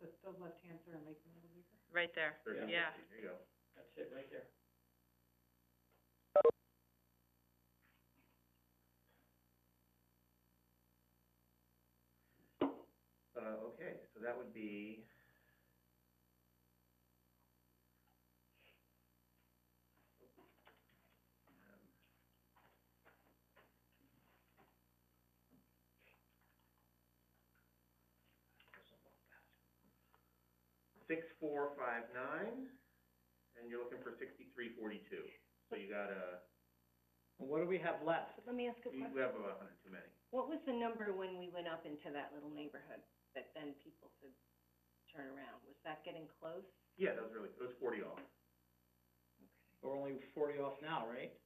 the left-hand turn, make them a little bigger. right there, There's yeah. fifty, there you go. That's it, right there. Uh, okay, so that would be. Um, Six, four, five, nine, and you're looking for sixty-three, forty-two, so you got a, And what do we have left? Let me ask a you question. have about a hundred too many. What was the number when we went up into that little neighborhood that then people could turn around? Was that getting close? Yeah, that was really, that was forty off, We're only forty off now, right?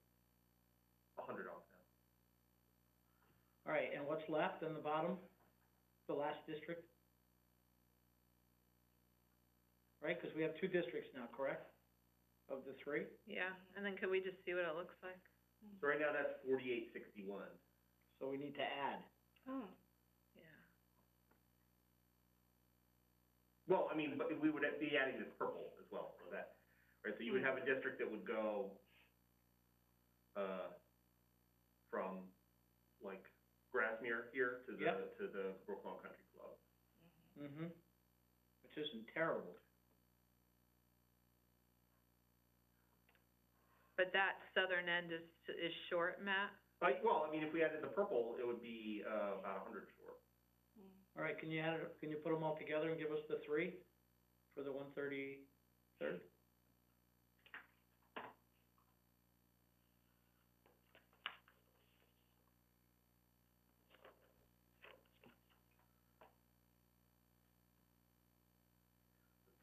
a hundred off now. All right, and what's left in the bottom, the last district? Right, 'cause we have two districts now, correct? Of the three? Yeah, and then could we just see what it looks like? So right now, that's forty-eight, sixty-one. So we need to add. Oh. Yeah, Well, I mean, but we would be adding this purple as well, so that, right, so you would have a district that would go, uh, from, like, Grassmere here to the, Yep. to the Brooklawn Country Club. Mm-hmm. Which isn't terrible. but that southern end is, is short, Matt? Like, well, I mean, if we added the purple, it would be, uh, about a hundred short. All right, can you add, it- can you put them all together and give us the three for the one thirty-third?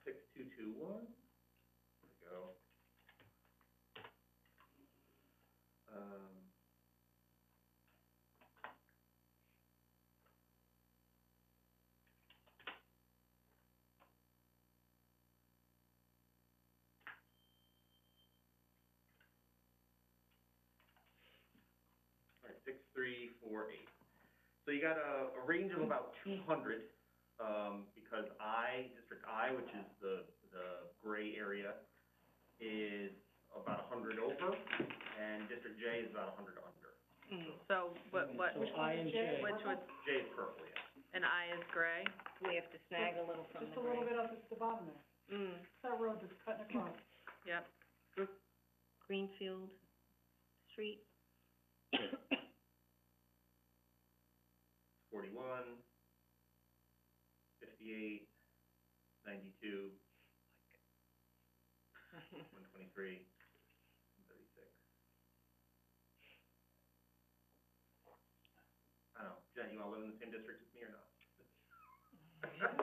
Six, two, two, one, there we go. Um. All right, six, three, four, eight. So you got a, a range of about two hundred, um, because I, District I, which is the, the gray area, is about a hundred over, and District J is about a hundred under. So what, what, So I and J. which would, J is purple, yeah. and I is gray? We have to snag a little from Just a the little green. bit up at the bottom there, Mm, that road that's cutting across. yep, Greenfield Street. Forty-one, fifty-eight, ninety-two, one twenty-three, thirty-six. I don't know, Jen, you wanna live in the same district as me or not?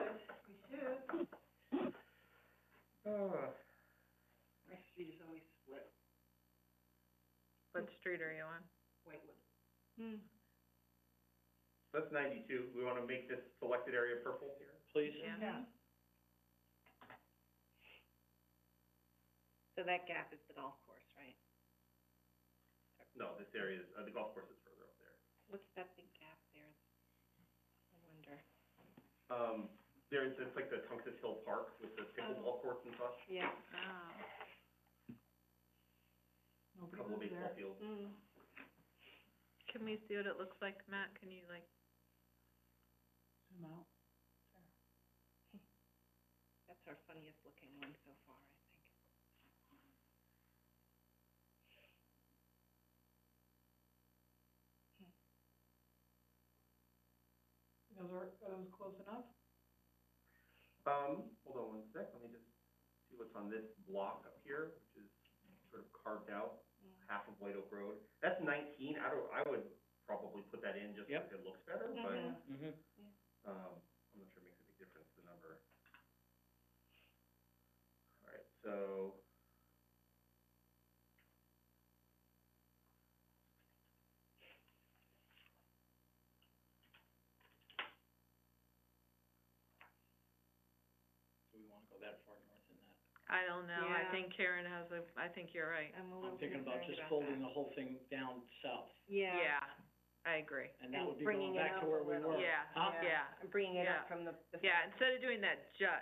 Uh, My street is always split. what street are you on? Hmm. That's ninety-two, we wanna make this selected area purple here? Please. Yeah, Yeah. So that gap is the golf course, right? No, this area is, uh, the golf course is further up there. What's that big gap there? I wonder. Um, there's, it's like the Tungus Hill Park with the pickleball courts and such, Yeah. oh, a Nobody couple of lives baseball there. fields. Mm. can we see what it looks like, Matt, can you like, Zoom out. That's our funniest looking one so far, I think. Those are, those close enough? Um, hold on one sec, let me just see what's on this block up here, which is sort of carved out, half of White Oak Road. That's nineteen, I don't, I would probably put that in just Yep. because it looks better, but, Mm-hmm. um, I'm not sure it makes a big difference, the number. All right, so. Do we wanna go that far north in that? I don't know, I Yeah. think Karen has a, I think you're right. I'm a I'm little thinking concerned about about that. just folding the whole thing down south, Yeah. I agree, and that And would be bringing going it back up to a where we little. were. yeah, Huh? yeah, Bringing it Yeah. up from the, the yeah, instead of doing that jut,